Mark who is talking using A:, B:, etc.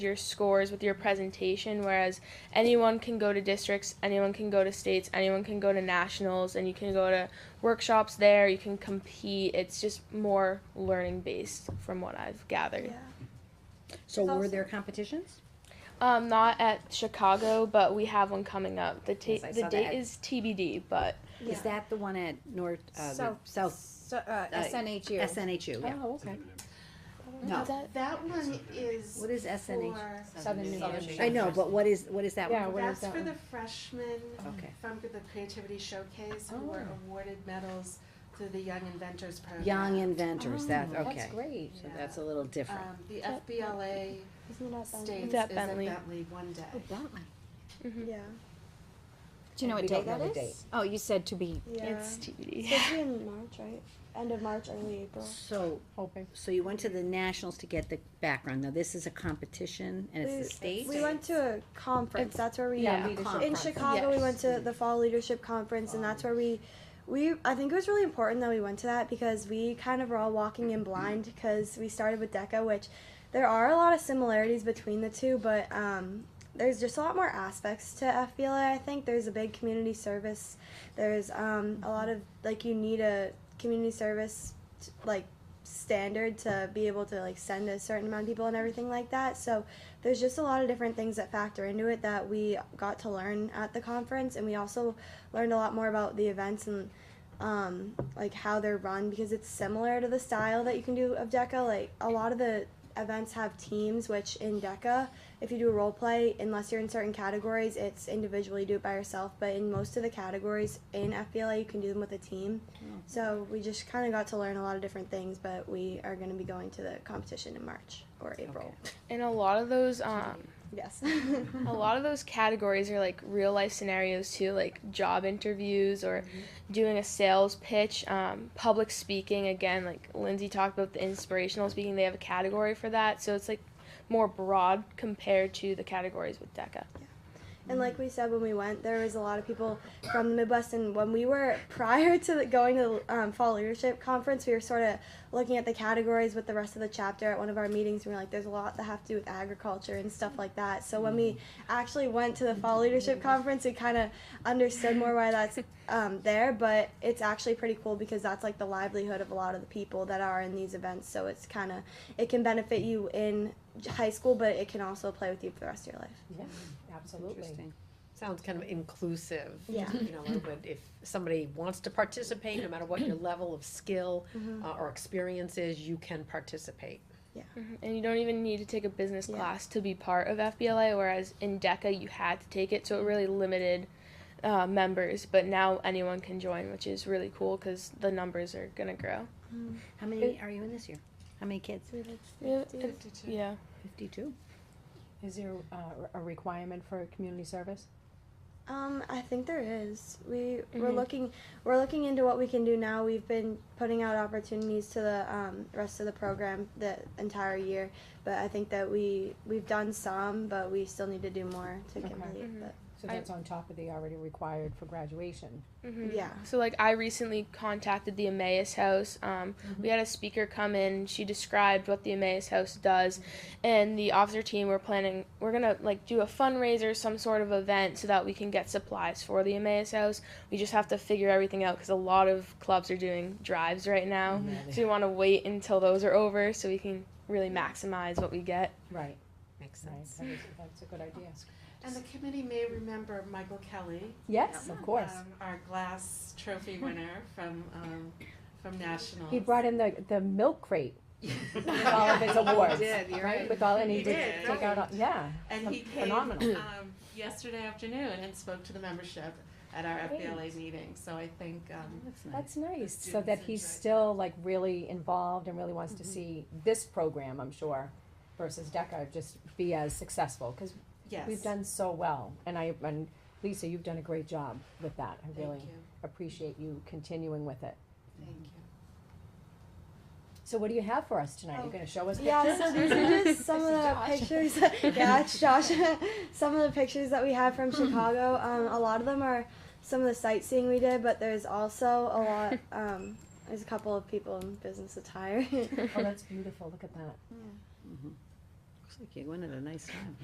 A: your scores with your presentation whereas anyone can go to districts anyone can go to states anyone can go to nationals and you can go to workshops there you can compete it's just more learning based from what i've gathered
B: So
C: It's
B: were
C: also-
B: there competitions?
A: um not at chicago but we have one coming up the, ta-
B: Yes, I
A: the
B: saw
A: date
B: that.
A: is tbd but
C: Yeah.
B: Is that the one at North, uh, the
C: South-
B: South,
C: So, uh, SNHU.
B: SNHU, yeah?
C: Oh, okay.
B: No,
A: That-
D: That one is
C: Oh,
B: what is SNHU?
D: for,
C: Southern New Hampshire.
B: I know, but what is, what is that
C: Yeah,
B: one?
C: what is
D: that's
C: that
D: for
C: one?
D: the freshmen
B: Okay.
D: from the Creativity Showcase who were
B: Oh.
D: awarded medals through the Young Inventors Program.
B: Young inventors, that,
C: Oh,
B: okay.
C: That's great.
B: So that's a little different.
D: Um, the FBLA
C: Isn't that something?
D: states is
A: That
D: at
A: Bentley.
D: Bentley one
B: Oh,
C: Uh,
D: day.
A: mhm.
E: Yeah,
C: Do you know
B: We
C: what
B: don't
C: date
B: know
C: that
B: the
C: is?
B: date.
C: Oh, you said to be.
E: yeah.
A: it's tbd
E: supposed to be in March, right? End of March, early April.
B: So,
C: Hoping.
B: so you went to the nationals to get the background. Now, this is a competition and it's the state?
E: We went to a conference.
A: It's-
E: that's where we uh,
A: yeah,
E: in
B: Conference.
E: Chicago. We went
B: Yes.
E: to the Fall Leadership Conference, and that's where we. We, I think it was really important that we went to that because we kind of were all walking in blind because we started with DECA, which there are a lot of similarities between the two, but um, there's just a lot more aspects to FBLA. I think there's a big community service. There's um, a lot of like you need a community service t- like standard to be able to like send a certain amount of people and everything like that. So there's just a lot of different things that factor into it that we got to learn at the conference, and we also learned a lot more about the events and um, like how they're run because it's similar to the style that you can do of DECA. Like a lot of the events have teams, which in DECA, if you do a role play, unless you're in certain categories, it's individually do it by yourself. But in most of the categories in FBLA, you can do them with a team. So we just kind of got to learn a lot of different things, but we are going to be going to the competition in March or April.
A: and a lot of those um
E: Yes.
A: a lot of those categories are like real life scenarios too, like job interviews or doing a sales pitch, um, public speaking. Again, like Lindsay talked about the inspirational speaking, they have a category for that. So it's like more broad compared to the categories with DECA.
E: And like we said when we went, there was a lot of people from the Midwest. And when we were prior to the- going to um, Fall Leadership Conference, we were sort of looking at the categories with the rest of the chapter at one of our meetings. And we were like, there's a lot that have to do with agriculture and stuff like that. So when we actually went to the Fall Leadership Conference, we kind of understood more why that's um, there. But it's actually pretty cool because that's like the livelihood of a lot of the people that are in these events. So it's kind of, it can benefit you in high school, but it can also play with you for the rest of your life.
F: Absolutely.
B: Interesting.
F: Sounds kind of inclusive.
E: Yeah.
F: You know, it would- if somebody wants to participate, no matter what your level of skill
C: Mm-hmm.
E: Mhm.
F: uh, or experience is, you can participate.
A: Mhm. And you don't even need to take a business
E: Yeah.
A: class to be part of FBLA, whereas in DECA, you had to take it. So it really limited uh, members, but now anyone can join, which is really cool because the numbers are going to grow.
B: How many are you in this year? How many kids?
A: Yeah.
D: Fifty-two.
A: yeah.
B: Fifty-two?
G: Is there uh, a requirement for community service?
E: Um, I think there is. We we're
A: Mhm.
E: looking we're looking into what we can do now. We've been putting out opportunities to the um, rest of the program the entire year, but I think that we we've done some, but we still need to do more to
G: Okay.
E: complete.
A: Mhm.
E: But
G: So
A: I-
G: that's on top of the already required for graduation.
A: hmm
E: yeah,
A: So like I recently contacted the Emmaus House. Um, We had a speaker come in. She described what the Emmaus House does, and the officer team were planning. We're gonna like do a fundraiser, some sort of event, so that we can get supplies for the Emmaus House. We just have to figure everything out because a lot of clubs are doing drives right now. So we want to wait until those are over so we can really maximize what we get.
G: Right,
F: Makes
G: right,
F: sense.
G: that is, that's a good idea.
D: And the committee may remember Michael Kelly.
G: Yes, of course.
D: um, our glass trophy winner from, um, from Nationals.
G: He brought in the, the milk crate with all of his awards.
C: did, you're right.
G: With all, and he
D: He
G: did
D: did,
G: take out, all-
D: right.
G: yeah.
D: And
G: ph-
D: he came
G: Phenomenal.
D: um, yesterday afternoon and spoke to the membership at our FBLA meeting. So I think um,
B: That's nice.
G: That's nice, so
D: students
G: that he's
D: enjoyed it.
G: still like really involved and really wants to see this program, I'm sure, versus DECA just be as successful, because
D: yes,
G: we've done so well. And I, and Lisa, you've done a great job with that. I
D: Thank
G: really
D: you.
G: appreciate you continuing with it.
D: Thank you.
G: So what do you have for us tonight? You're gonna show us
E: Oh. yeah.
G: pictures?
E: So these are just some of the pictures. yeah, it's Josh. some of the pictures that we have from Chicago. Um, a lot of them are some of the sightseeing we did, but there's also a lot. Um, there's a couple of people in business attire.
G: Oh, that's beautiful. Look at that.
B: Mhm. Looks like you went at a nice time.